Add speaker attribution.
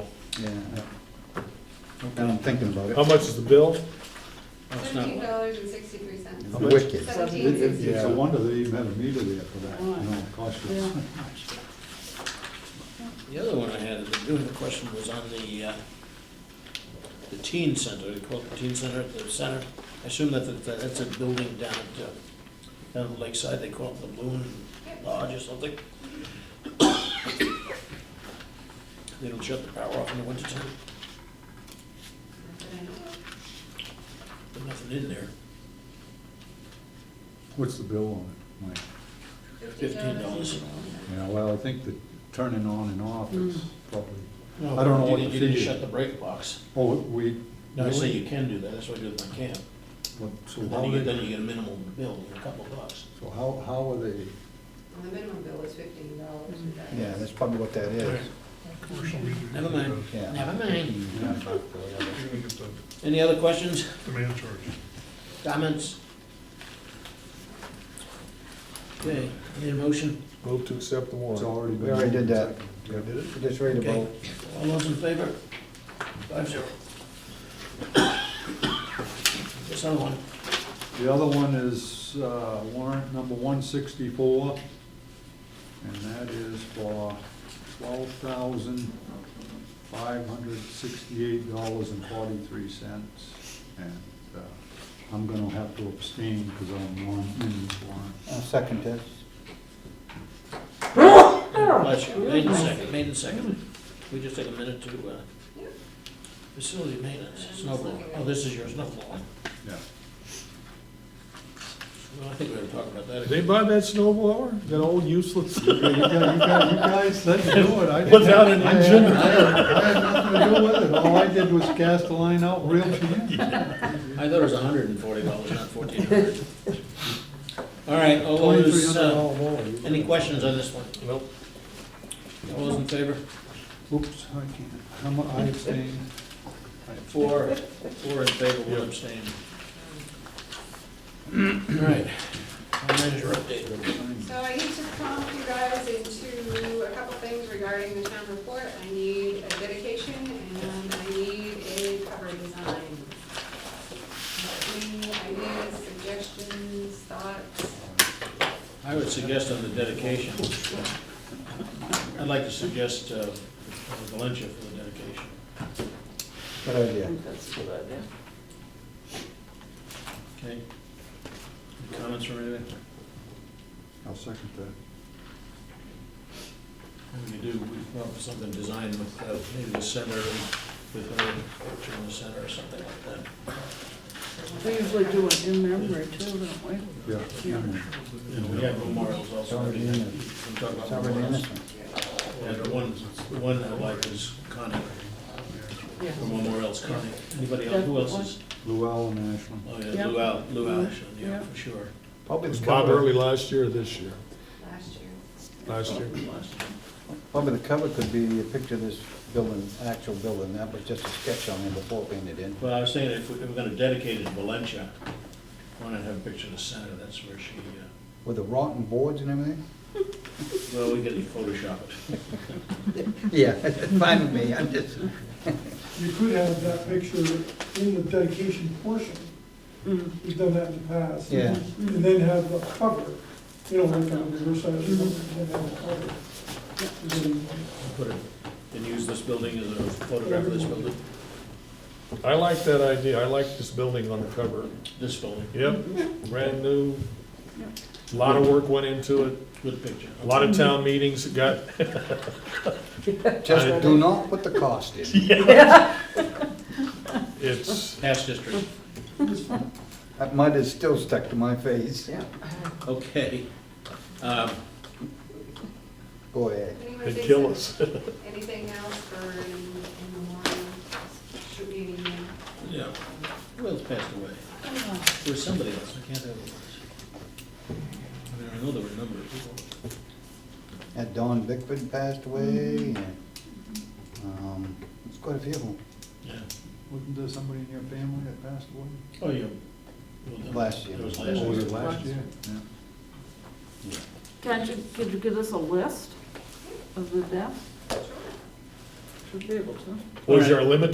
Speaker 1: Yeah. Now I'm thinking about
Speaker 2: How
Speaker 1: it.
Speaker 2: much is the bill?
Speaker 3: Seventeen dollars and sixty-three cents.
Speaker 2: How much?
Speaker 1: Wicked.
Speaker 3: Seventeen
Speaker 1: It- it-
Speaker 3: sixty.
Speaker 1: It's a wonder they even had a meter there for that, you know,
Speaker 4: Yeah.
Speaker 1: costless.
Speaker 5: The other one I had, the other question was on the, uh, the teen center, they call it the teen center, at the center. I assume that, that- that's a building down at, uh, down at Lakeside, they call it the Balloon Lodge or something. They don't shut the power off in the wintertime, there's nothing in there.
Speaker 1: What's the bill on it, Mike?
Speaker 5: Fifteen dollars an
Speaker 1: Yeah, well, I think the turning on and off is probably,
Speaker 5: hour.
Speaker 1: I don't know
Speaker 5: You
Speaker 1: what
Speaker 5: didn't-
Speaker 1: the
Speaker 5: You didn't
Speaker 1: fee is.
Speaker 5: shut the break box.
Speaker 1: oh, we.
Speaker 5: No, I say
Speaker 1: really?
Speaker 5: you can do that, that's what I do with my camp.
Speaker 1: What- So how
Speaker 5: Then you
Speaker 1: are
Speaker 5: get, then
Speaker 1: they,
Speaker 5: you get a minimum bill, a couple of bucks.
Speaker 1: so how, how are they?
Speaker 3: The minimum bill is fifteen dollars.
Speaker 6: Yeah, that's probably what that is.
Speaker 5: Never mind,
Speaker 6: Yeah.
Speaker 5: never mind.
Speaker 1: Yeah.
Speaker 5: Any other questions,
Speaker 2: Demand charge.
Speaker 5: comments? Okay, need a motion?
Speaker 2: Move to accept the
Speaker 1: It's
Speaker 2: warrant.
Speaker 1: already been.
Speaker 6: We already did that.
Speaker 1: Yeah, did it?
Speaker 6: Just ready to
Speaker 5: Okay.
Speaker 6: vote.
Speaker 5: All those in favor? Five zero. This other one,
Speaker 1: The other one is uh, warrant number one sixty-four, and that is for twelve thousand five hundred sixty-eight dollars and forty-three cents. And uh, I'm gonna have to abstain because I'm on in this warrant.
Speaker 6: I'll uh, second this.
Speaker 5: bless you, made in second, made in second. We just take a minute to, uh, facility maintenance, snowball. Oh, this is your snowball.
Speaker 1: Yeah.
Speaker 5: Well, I think we're gonna talk about that
Speaker 2: Did
Speaker 5: again.
Speaker 2: they buy that snow blower? That old useless?
Speaker 1: You guys- you guys, you guys said to do it. I didn't-
Speaker 2: Without an
Speaker 1: I had-
Speaker 2: engine?
Speaker 1: I had I had nothing to do with it. All I did was cast the line out real to you.
Speaker 5: I thought it was hundred and forty dollars, not fourteen hundred. All right, all
Speaker 1: Twenty-three
Speaker 5: those,
Speaker 1: hundred
Speaker 5: uh,
Speaker 1: dollar wall.
Speaker 5: any questions on this one?
Speaker 2: Nope.
Speaker 5: All those in favor?
Speaker 1: Oops, I can't, how mu, I abstain.
Speaker 5: Four, four in favor, one abstain. All right, town manager update.
Speaker 3: So I need to prompt you guys into a couple things regarding the town report. I need a dedication and I need a cover design. Any ideas, suggestions, thoughts?
Speaker 5: I would suggest on the dedication, I'd like to suggest uh, Valencia for the dedication.
Speaker 6: Good idea.
Speaker 5: Okay? Any Comments or anything?
Speaker 1: I'll second that.
Speaker 5: We do, we come up with something designed with, uh, maybe the center, with a picture in the center or something like that.
Speaker 4: We usually do it in memory too, don't we?
Speaker 1: Yeah.
Speaker 5: You know, we have memorials also.
Speaker 6: It's already in there.
Speaker 5: We talk about
Speaker 6: It's already in this
Speaker 5: memorials.
Speaker 6: one.
Speaker 5: And the one, the one I like is Connie,
Speaker 4: Yeah.
Speaker 5: the memorial's Connie. Anybody else, who else is?
Speaker 1: Luell and Ashland.
Speaker 5: Oh, yeah,
Speaker 4: Yeah.
Speaker 5: Lou Al, Lou Alishon, yeah,
Speaker 4: Yeah.
Speaker 5: for sure.
Speaker 6: Probably
Speaker 2: Was
Speaker 6: the
Speaker 2: Bob early
Speaker 6: cover,
Speaker 2: last year or this year?
Speaker 3: Last year.
Speaker 2: Last year.
Speaker 6: probably the cover could be a picture of this building, an actual building. That was just a sketch on there before painted in.
Speaker 5: Well, I was saying, if we- if we're gonna dedicate it to Valencia, why not have a picture of the center, that's where she, uh,
Speaker 6: With the rotten boards and everything?
Speaker 5: well, we can Photoshop it.
Speaker 6: Yeah, fine with me, I'm just.
Speaker 7: You could have that picture in the dedication portion, we've done that in the past.
Speaker 6: Yeah.
Speaker 7: And then have the cover, you know, like on the reverse side of the cover, and then have a cover. And then-
Speaker 5: Put it, and use this building as a photograph of this building,
Speaker 2: I like that idea. I like this building on the cover.
Speaker 5: this building,
Speaker 2: Yep, brand new. A Lot of work went into it.
Speaker 5: good picture.
Speaker 2: A lot of town meetings that got,
Speaker 6: Just do not put the cost in.
Speaker 2: it's,
Speaker 5: Past history,
Speaker 6: That mud is still stuck to my face.
Speaker 4: Yeah.
Speaker 5: okay. Um,
Speaker 6: Go ahead.
Speaker 3: Anyone
Speaker 2: they
Speaker 3: thinks
Speaker 2: kill
Speaker 3: of
Speaker 2: us.
Speaker 3: Anything else for in in the morning? Should be an email.
Speaker 5: Yeah, who else passed away? There was somebody else, I can't remember who it was. I mean, I know there were a number of people.
Speaker 6: That Don Bickford passed away, and,
Speaker 1: Mm-hmm.
Speaker 6: um, it's quite a few of them.
Speaker 5: Yeah.
Speaker 1: Wasn't there somebody in your family that passed away?
Speaker 5: Oh, yeah.
Speaker 6: Last year.
Speaker 5: It was
Speaker 1: Or
Speaker 5: last
Speaker 1: was
Speaker 5: year.
Speaker 1: it last year? Yeah.
Speaker 4: Can't you, could you give us a list of the deaths? should be able to.
Speaker 2: Was there a limit